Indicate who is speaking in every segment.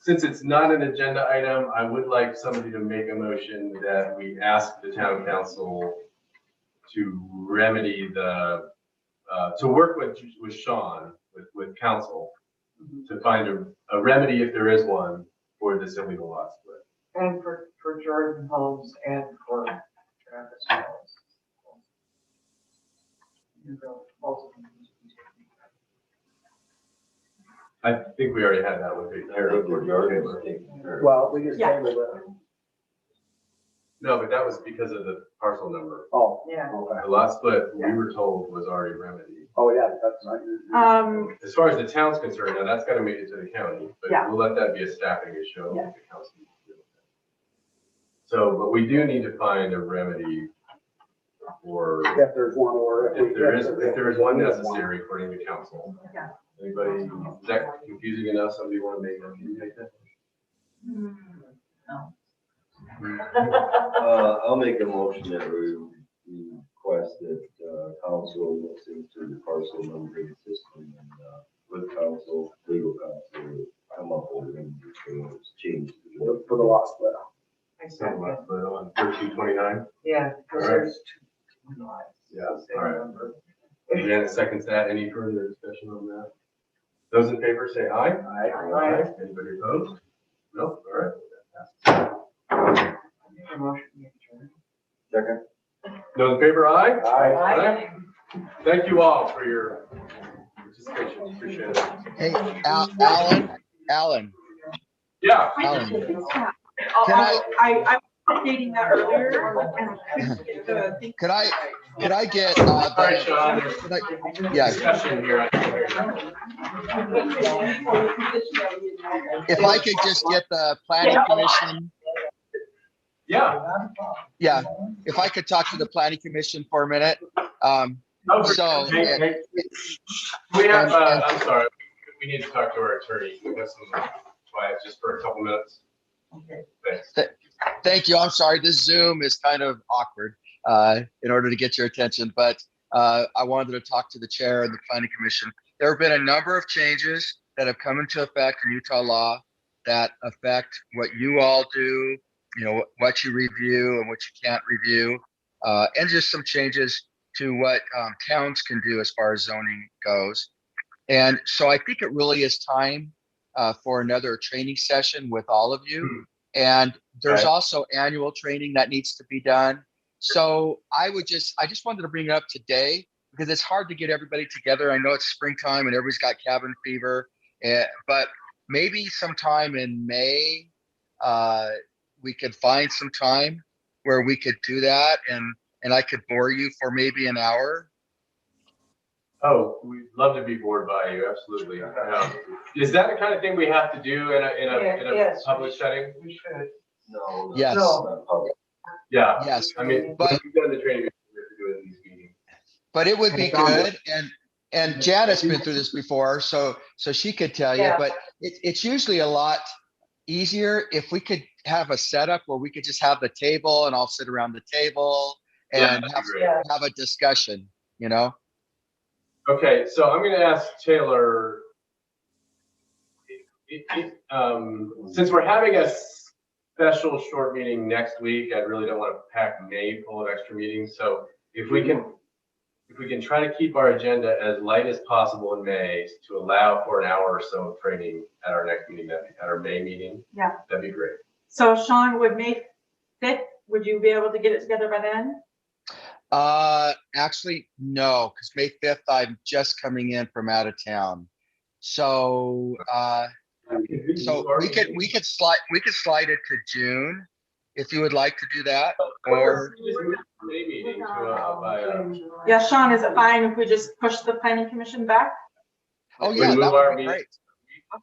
Speaker 1: since it's not an agenda item, I would like somebody to make a motion that we ask the town council to remedy the, uh, to work with, with Sean, with, with council,
Speaker 2: Mm-hmm.
Speaker 1: to find a, a remedy if there is one for this illegal lot split.
Speaker 2: And for, for Jordan Holmes and for Travis Wells. You know, both of them.
Speaker 1: I think we already had that with the
Speaker 3: think we're already-
Speaker 4: Well, we just
Speaker 5: Yeah.
Speaker 4: tabled it.
Speaker 1: No, but that was because of the parcel number.
Speaker 4: Oh,
Speaker 2: Yeah,
Speaker 4: okay.
Speaker 1: The lot split, we were told, was already remedied.
Speaker 4: Oh, yeah, that's right.
Speaker 5: Um,
Speaker 1: As far as the town's concerned, now that's gotta make it to the county, but
Speaker 5: Yeah.
Speaker 1: we'll let that be a staffing issue. I don't
Speaker 5: Yeah.
Speaker 1: think the council needs to deal with that. So, but we do need to find a remedy for,
Speaker 4: If there's one or if we.
Speaker 1: if there is, if there is one necessary according to council.
Speaker 5: Yeah.
Speaker 1: Anybody, is that confusing enough? Somebody wanna make, can you make that?
Speaker 5: Mm-hmm.
Speaker 3: Uh, I'll make a motion that we we request that, uh, council looks into the parcel numbering system and, uh, with council, legal counsel, come up with and change.
Speaker 4: For for the lost split.
Speaker 2: I
Speaker 1: So,
Speaker 2: said that.
Speaker 1: uh, but on thirteen twenty-nine?
Speaker 2: Yeah, because
Speaker 1: All right.
Speaker 2: there's two. two lives.
Speaker 1: Yeah,
Speaker 2: Same
Speaker 1: all right.
Speaker 2: number.
Speaker 1: Deanna seconds that. Any further discussion on that? Those in favor say aye.
Speaker 2: Aye.
Speaker 1: Anybody opposed? No, all right. that passes.
Speaker 2: I made a motion to adjourn.
Speaker 3: Second.
Speaker 1: Those in favor, aye?
Speaker 4: Aye.
Speaker 1: Aye. Thank you all for your participation. Appreciate it.
Speaker 6: Hey, Al- Alan, Alan,
Speaker 1: Yeah,
Speaker 6: Alan,
Speaker 5: Can
Speaker 6: Can I-
Speaker 5: I, oh, I was updating that earlier and I couldn't get the thing.
Speaker 6: could I, could I get, uh,
Speaker 1: all right,
Speaker 6: the-
Speaker 1: Sean, there's
Speaker 6: could I, yeah,
Speaker 1: discussion here. I think there's-
Speaker 6: if I could just get the planning commission,
Speaker 1: Yeah.
Speaker 6: yeah, if I could talk to the planning commission for a minute. Um,
Speaker 1: Oh, for
Speaker 6: So,
Speaker 1: sure. Hey,
Speaker 6: yeah.
Speaker 1: hey. We have, uh, I'm sorry, we need to talk to our attorney. We have some quiet just for a couple minutes.
Speaker 2: Okay.
Speaker 1: Thanks.
Speaker 6: thank you, I'm sorry, this Zoom is kind of awkward, uh, in order to get your attention, but, uh, I wanted to talk to the chair and the planning commission. There have been a number of changes that have come into effect in Utah law that affect what you all do, you know, what you review and what you can't review, uh, and just some changes to what um, towns can do as far as zoning goes. And so I think it really is time uh, for another training session with all of you. And there's
Speaker 1: Okay.
Speaker 6: also annual training that needs to be done. So I would just, I just wanted to bring it up today because it's hard to get everybody together. I know it's springtime and everybody's got cabin fever, eh, but maybe sometime in May, uh, we could find some time where we could do that and and I could bore you for maybe an hour.
Speaker 1: Oh, we'd love to be bored by you, absolutely. Um, Is that the kind of thing we have to do in a, in a, in a
Speaker 2: Yes.
Speaker 1: public setting?
Speaker 2: We should.
Speaker 3: No.
Speaker 6: Yes.
Speaker 3: not public.
Speaker 1: Yeah,
Speaker 6: Yes,
Speaker 1: I mean,
Speaker 6: But-
Speaker 1: we've done the training, we have to do it in these meetings.
Speaker 6: but it would be good. And and Janet's been through this before, so so she could tell you.
Speaker 2: Yeah.
Speaker 6: But it, it's usually a lot easier if we could have a setup where we could just have the table and I'll sit around the table
Speaker 1: Yeah,
Speaker 6: and
Speaker 1: that'd be
Speaker 6: have,
Speaker 1: great.
Speaker 2: Yeah,
Speaker 6: have a discussion. You know,
Speaker 1: Okay, so I'm gonna ask Taylor. i- i- i- Um, since we're having a special short meeting next week, I really don't wanna pack May full of extra meetings, so if we can. If we can try to keep our agenda as light as possible in May to allow for an hour or so of training at our next meeting, that'd be- at our May meeting.
Speaker 5: Yeah.
Speaker 1: That'd be great.
Speaker 5: So Sean would make fit, would you be able to get it together by then?
Speaker 6: uh, actually, no, because May fifth I'm just coming in from out of town, so uh, So we could, we could slide, we could slide it to June if you would like to do that. or-
Speaker 1: Just move the May meeting to, uh, by, uh,
Speaker 5: Yeah, Sean, is it fine if we just push the planning commission back?
Speaker 6: Oh,
Speaker 1: We
Speaker 6: yeah,
Speaker 1: move
Speaker 6: that
Speaker 1: our
Speaker 6: would be
Speaker 1: meeting.
Speaker 6: great.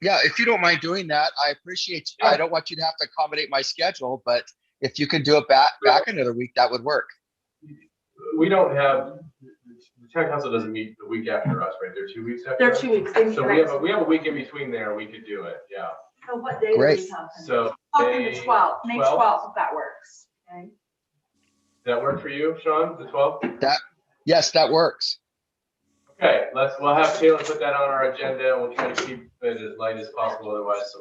Speaker 6: Yeah, if you don't mind doing that, I appreciate, you. I don't want you to have to accommodate my schedule, but if you can do it back, back another week, that would work.
Speaker 1: we don't have, the town council doesn't meet the week after us, right? They're two weeks after?
Speaker 5: They're
Speaker 1: us?
Speaker 5: two weeks. they meet
Speaker 1: So we have, a
Speaker 5: next-
Speaker 1: we have a week in between there, we could do it, yeah.
Speaker 7: So what day are
Speaker 6: Great.
Speaker 7: we talking?
Speaker 1: So
Speaker 5: Talking
Speaker 1: May
Speaker 5: the twelfth, May
Speaker 1: 12th?
Speaker 5: twelfth, if that works.
Speaker 7: Okay.
Speaker 1: does that work for you, Sean, the 12th?
Speaker 6: Yes, that works.
Speaker 1: Okay, let's, we'll have Taylor put that on our agenda. We'll try to keep it as light as possible, otherwise